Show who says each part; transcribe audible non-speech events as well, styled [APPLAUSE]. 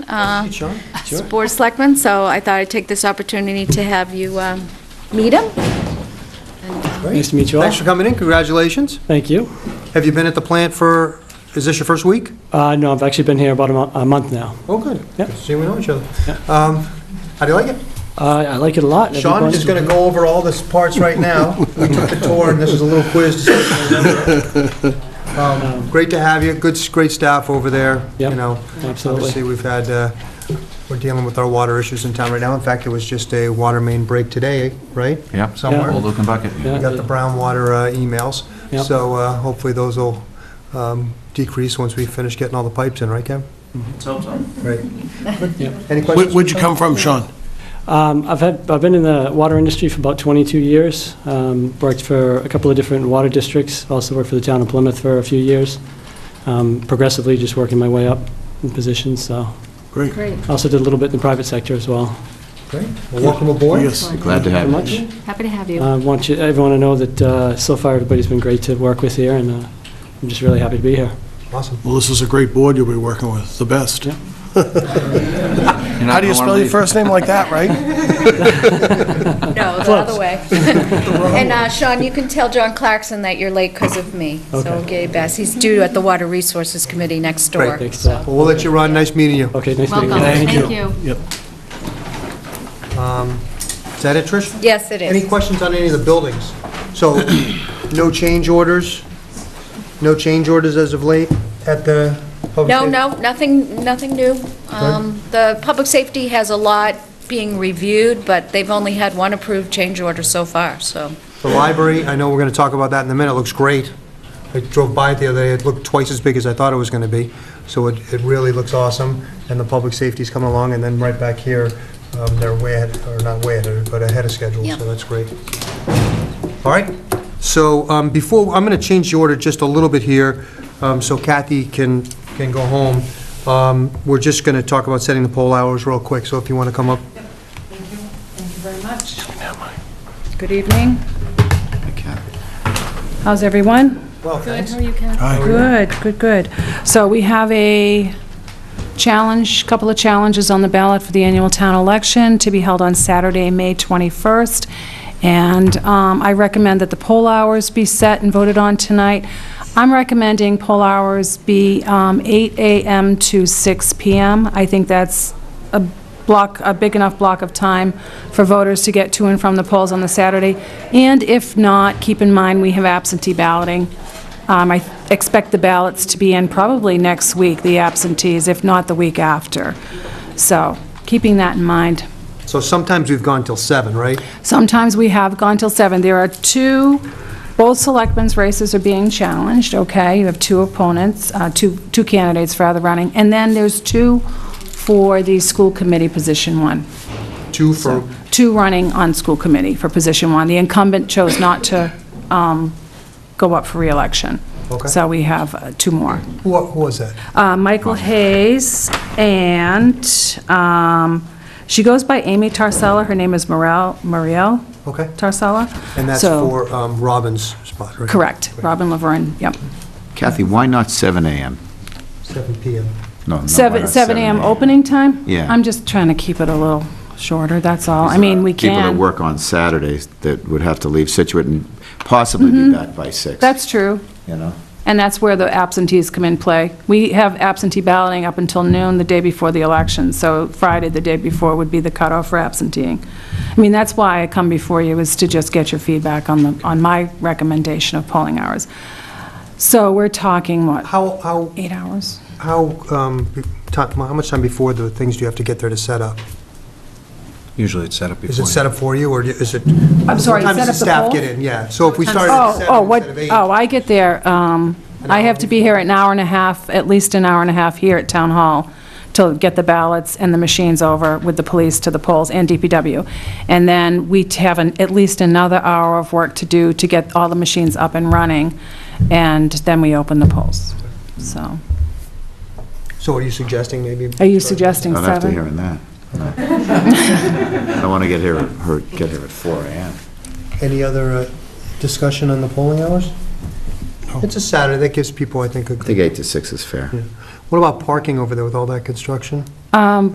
Speaker 1: uh,
Speaker 2: Hey, Sean, sure.
Speaker 1: Board of Selectmen, so I thought I'd take this opportunity to have you um, meet him.
Speaker 2: Great.
Speaker 3: Nice to meet you all.
Speaker 2: Thanks for coming in, congratulations.
Speaker 3: Thank you.
Speaker 2: Have you been at the plant for, is this your first week?
Speaker 3: Uh, no, I've actually been here about a mo- a month now.
Speaker 2: Oh, good.
Speaker 3: Yep.
Speaker 2: Good to See, we know each other. Um, How do you like it?
Speaker 3: Uh, I like it a lot.
Speaker 2: Sean
Speaker 3: Everybody-
Speaker 2: is going to go over all this parts right [LAUGHS] now. We took the tour, and this is a little quiz. to see if you remember. Um, Great to have you, good, s- great staff over there, you
Speaker 3: Yep,
Speaker 2: know.
Speaker 3: absolutely.
Speaker 2: Obviously, we've had, uh, we're dealing with our water issues in town right now. In fact, there was just a water main break today, right?
Speaker 4: Yeah,
Speaker 2: Somewhere.
Speaker 4: old open bucket.
Speaker 3: Yeah.
Speaker 2: We got the brown water uh, emails,
Speaker 3: Yep.
Speaker 2: so uh, hopefully those will um, decrease once we finish getting all the pipes in, right, Kev? Let's hope so.
Speaker 3: Yep.
Speaker 2: Right. Any
Speaker 5: Where-
Speaker 2: questions?
Speaker 5: Where'd you come from, Sean?
Speaker 3: Um, I've had, I've been in the water industry for about 22 years. Um, worked for a couple of different water districts. Also worked for the town of Plymouth for a few years. Um, progressively, just working my way up in positions. So,
Speaker 5: Great.
Speaker 1: Great.
Speaker 3: also did a little bit in the private sector as well.
Speaker 2: Great. Well, Welcome aboard.
Speaker 5: Yes.
Speaker 4: Glad to have
Speaker 3: Very
Speaker 4: you.
Speaker 3: much.
Speaker 1: Happy to have
Speaker 3: I
Speaker 1: you.
Speaker 3: want you, everyone to know that uh, so far everybody's been great to work with here, and uh, I'm just really happy to be here.
Speaker 2: Awesome.
Speaker 5: Well, this is a great board you'll be working with, the best.
Speaker 3: Yeah.
Speaker 5: How do you spell your first name like that, right?
Speaker 1: No, the other way. And uh, Sean, you can tell John Clarkson that you're late because of me, so we'll get you best. He's due at the Water Resources Committee next door.
Speaker 3: Thanks.
Speaker 1: so-
Speaker 3: Zach.
Speaker 2: [LAUGHS] Well, we'll let you run, nice meeting you.
Speaker 3: Okay, nice meeting
Speaker 1: Welcome.
Speaker 3: you.
Speaker 5: Thank you.
Speaker 1: you.
Speaker 5: Yep.
Speaker 2: Um, Is that it, Trish?
Speaker 1: Yes, it
Speaker 2: Any
Speaker 1: is.
Speaker 2: questions on any of the buildings? So, no change orders? No change orders as of late at the public?
Speaker 1: No,
Speaker 2: safety?
Speaker 1: no, nothing, nothing new. Um, The public safety has a lot being reviewed, but they've only had one approved change order so far, so.
Speaker 2: The library, I know we're going to talk about that in a minute, looks great. I drove by it the other day, it looked twice as big as I thought it was going to be, so it it really looks awesome, and the public safety's coming along, and then right back here, um, they're way ahead, or not way ahead, but ahead of schedule,
Speaker 1: Yeah.
Speaker 2: so that's great. All right, so um, before, I'm going to change the order just a little bit here, um, so Kathy can, can go home. Um, We're just going to talk about setting the poll hours real quick, so if you want to come up.
Speaker 6: Thank you very much. Good evening. How's everyone?
Speaker 2: Well, thanks.
Speaker 6: Good, good, good. So we have a challenge, couple of challenges on the ballot for the annual town election to be held on Saturday, May 21st. And um, I recommend that the poll hours be set and voted on tonight. I'm recommending poll hours be um, 8 a.m. to 6 p.m. I think that's a block, a big enough block of time for voters to get to and from the polls on the Saturday. And if not, keep in mind, we have absentee balloting. Um, I expect the ballots to be in probably next week, the absentees, if not the week after. So, keeping that in mind.
Speaker 2: So sometimes we've gone till seven, right?
Speaker 6: Sometimes we have gone till seven. There are two, both selectmen's races are being challenged, okay? You have two opponents, uh, two two candidates for other running, and then there's two for the school committee position one.
Speaker 2: Two for
Speaker 6: two running on school committee for position one. The incumbent chose not to um, go up for reelection.
Speaker 2: Okay.
Speaker 6: So we have uh, two more.
Speaker 2: Who who was that?
Speaker 6: Uh, Michael Hayes, and um, she goes by Amy Tarsella. Her name is Morel, Muriel
Speaker 2: Okay.
Speaker 6: Tarsella.
Speaker 2: And that's
Speaker 6: So-
Speaker 2: for um, Robin's spot, right?
Speaker 6: Correct, Robin Laverne, yep.
Speaker 4: Kathy, why not 7 AM?
Speaker 2: Seven PM.
Speaker 4: No, no, why
Speaker 6: Seven
Speaker 4: not
Speaker 6: seven AM opening time?
Speaker 4: Yeah.
Speaker 6: I'm just trying to keep it a little shorter, that's all. I mean, we can.
Speaker 4: People that work on Saturdays that would have to leave Situate and possibly be back by six.
Speaker 6: Mm-hmm. That's true.
Speaker 4: You know?
Speaker 6: And that's where the absentees come in play. We have absentee balloting up until noon the day before the election, so Friday, the day before, would be the cutoff for absenteeing. I mean, that's why I come before you, is to just get your feedback on the, on my recommendation of polling hours. So we're talking, what,
Speaker 2: How, how,
Speaker 6: eight hours?
Speaker 2: how, um, be- ti- how much time before the things do you have to get there to set up?
Speaker 7: Usually it's set up before.
Speaker 2: Is it set up for you, or is it?
Speaker 6: I'm sorry,
Speaker 2: Sometimes
Speaker 6: set
Speaker 2: the
Speaker 6: up the
Speaker 2: staff
Speaker 6: poll?
Speaker 2: get in, yeah. So if we started at
Speaker 6: Oh,
Speaker 2: seven
Speaker 6: oh, what,
Speaker 2: instead of eight.
Speaker 6: oh, I get there, um, I have to be here an hour and a half, at least an hour and a half here at Town Hall to get the ballots and the machines over with the police to the polls and DPW. And then we t- have an, at least another hour of work to do to get all the machines up and running, and then we open the polls. So,
Speaker 2: So are you suggesting maybe?
Speaker 6: are you suggesting
Speaker 4: Not after
Speaker 6: seven? [LAUGHS]
Speaker 4: hearing that. no. I don't want to get here, her- get here at 4 AM.
Speaker 2: Any other uh, discussion on the polling hours? It's a Saturday, that gives people, I think, a
Speaker 4: I think eight to six is fair.
Speaker 2: What about parking over there with all that construction?
Speaker 6: Um,